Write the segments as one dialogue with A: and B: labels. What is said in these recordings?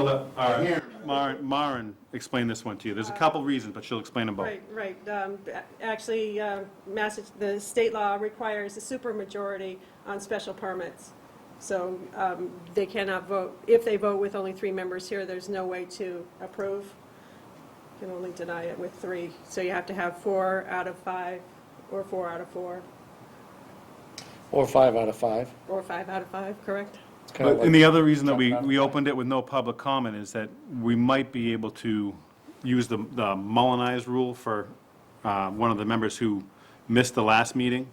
A: Let, uh, all
B: Here.
A: right, Maren, Maren explain this one to you. There's a couple reasons, but she'll explain them both.
C: Right, right. Um, a- Actually, uh, Massa- the state law requires a supermajority on special permits. So um, they cannot vote, if they vote with only three members here, there's no way to approve. You can only deny it with three. So you have to have four out of five, or four out of four,
D: Or five out of five.
C: or five out of five, correct?
D: It's kind of
A: But-
D: like-
A: And the other reason that we, we opened it with no public comment is that we might be able to use the, the Mullenized rule for, uh, one of the members who missed the last meeting.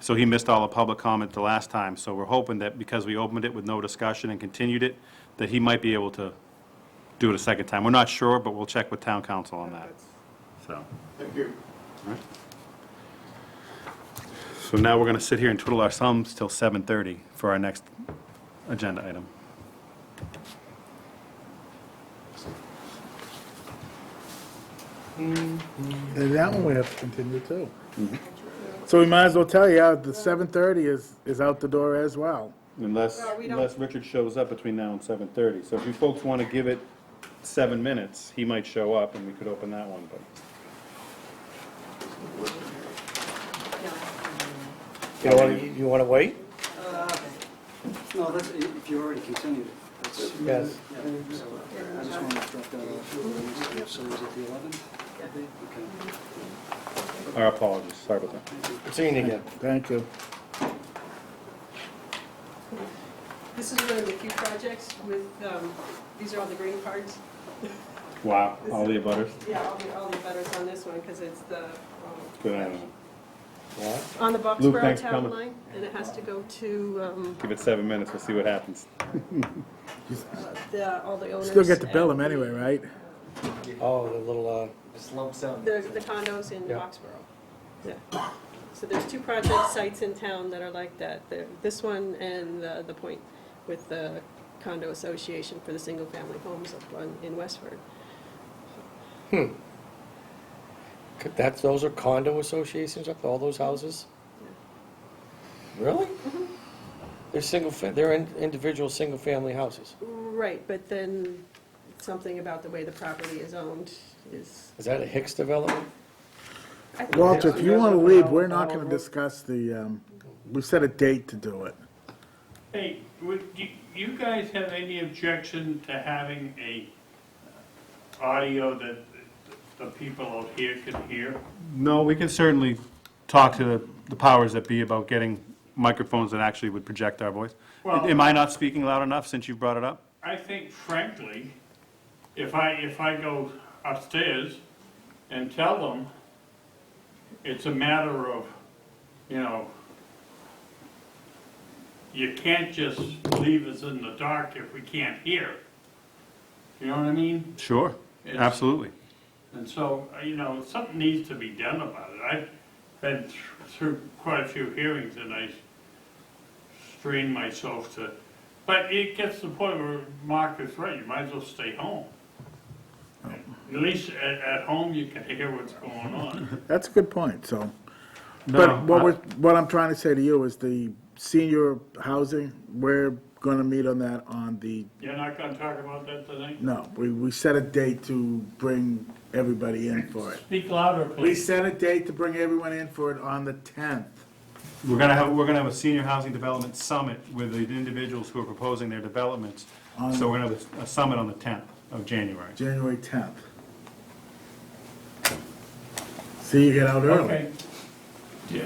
A: So he missed all the public comment the last time, so we're hoping that because we opened it with no discussion and continued it, that he might be able to do it a second time. We're not sure, but we'll check with town council on that, so.
B: Thank you.
A: So now we're gonna sit here and twiddle our thumbs till seven thirty for our next agenda item.
E: And that one we have to continue too. So we might as well tell you, uh, the 7:30 is, is out the door as well.
A: Unless,
C: Well, we don't-
A: unless Richard shows up between now and seven thirty, so if you folks wanna give it seven minutes, he might show up and we could open that one, but.
D: You want, you want to wait?
F: No, that's, if you already continued it, that's.
D: Yes.
F: Yeah, so, uh, I just wanted to drop that off. So is it the eleventh? Okay.
A: Our apologies, sorry about that.
D: Seeing again.
E: Thank you.
C: This is one of the few projects with, um, these are all the green cards.
A: Wow, all the butters.
C: Yeah, all the, all the butters on this one, because it's the, um,
A: Good, I don't know.
D: What?
C: on the
A: Luke,
C: Boxborough
A: thanks for
C: town
A: coming.
C: line, and it has to go to um,
A: Give it seven minutes, we'll see what happens.
C: the, all the owners.
E: Still get to bill
C: and
E: them anyway, right?
D: Oh, the little, uh,
G: It's lump sum.
C: The the condos in
D: Yeah.
C: Boxborough. Yeah. So there's two project sites in town that are like that. There- This one and uh, the point with the condo association for the single-family homes up on, in Westford.
D: could- that's, those are condo associations up, all those houses? Really?
A: Mm-hmm.
D: They're single, fa- they're in- individual, single-family houses.
C: Right, but then something about the way the property is owned is.
D: Is that a Hicks development?
C: I think
E: Walter, if
C: that's-
E: you want to leave, we're not going to discuss the, um, we set a date to do it.
H: Hey, would, do you guys have any objection to having a uh, audio that the the people out here can hear?
A: No, we can certainly talk to the powers that be about getting microphones that actually would project our voice.
H: Well-
A: Am I not speaking loud enough since you brought it up?
H: I think frankly, if I, if I go upstairs and tell them it's a matter of, you know, you can't just leave us in the dark if we can't hear. You know what I mean?
A: Sure,
H: It's-
A: absolutely.
H: And so, uh, you know, something needs to be done about it. I've been th- through quite a few hearings and I strained myself to, but it gets to the point where Mark is right, you might as well stay home. At least at, at home, you can hear what's going on.
E: That's a good point, so.
A: No,
E: But what
A: I-
E: we're, what I'm trying to say to you is the senior housing, we're going to meet on that on the,
H: You're not gonna talk about that tonight?
E: no, we, we set a date to bring everybody in for it.
H: Speak louder,
E: We
H: please.
E: set a date to bring everyone in for it on the 10th.
A: We're gonna have, we're gonna have a senior housing development summit with the individuals who are proposing their developments. So we're gonna have a summit on the tenth of January.
E: January 10th. See, you get out early.
H: Okay. Yeah.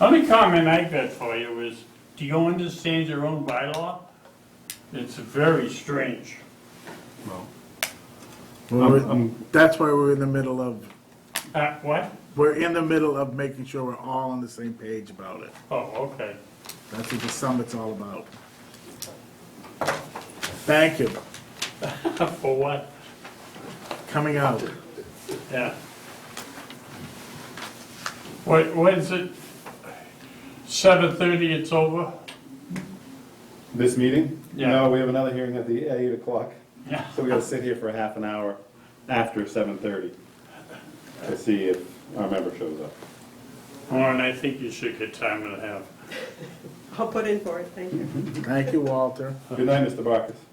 H: Only comment I got for you is, do you understand your own bylaw? It's very strange.
A: Well,
E: Well,
A: I'm- I'm-
E: That's why we're in the middle of,
H: Uh, what?
E: we're in the middle of making sure we're all on the same page about it.
H: Oh, okay.
E: That's what the summit's all about. Thank you,
H: For what?
E: coming out.
H: Yeah. What, what is it? Seven thirty, it's over?
A: This meeting?
H: Yeah.
A: No, we have another hearing at the eight o'clock,
H: Yeah.
A: so we gotta sit here for a half an hour after seven thirty to see if our member shows up.
H: Warren, I think you should get time and a half.
C: I'll put in for it, thank you.
E: Thank you, Walter.
A: Good night, Mr. Barkis.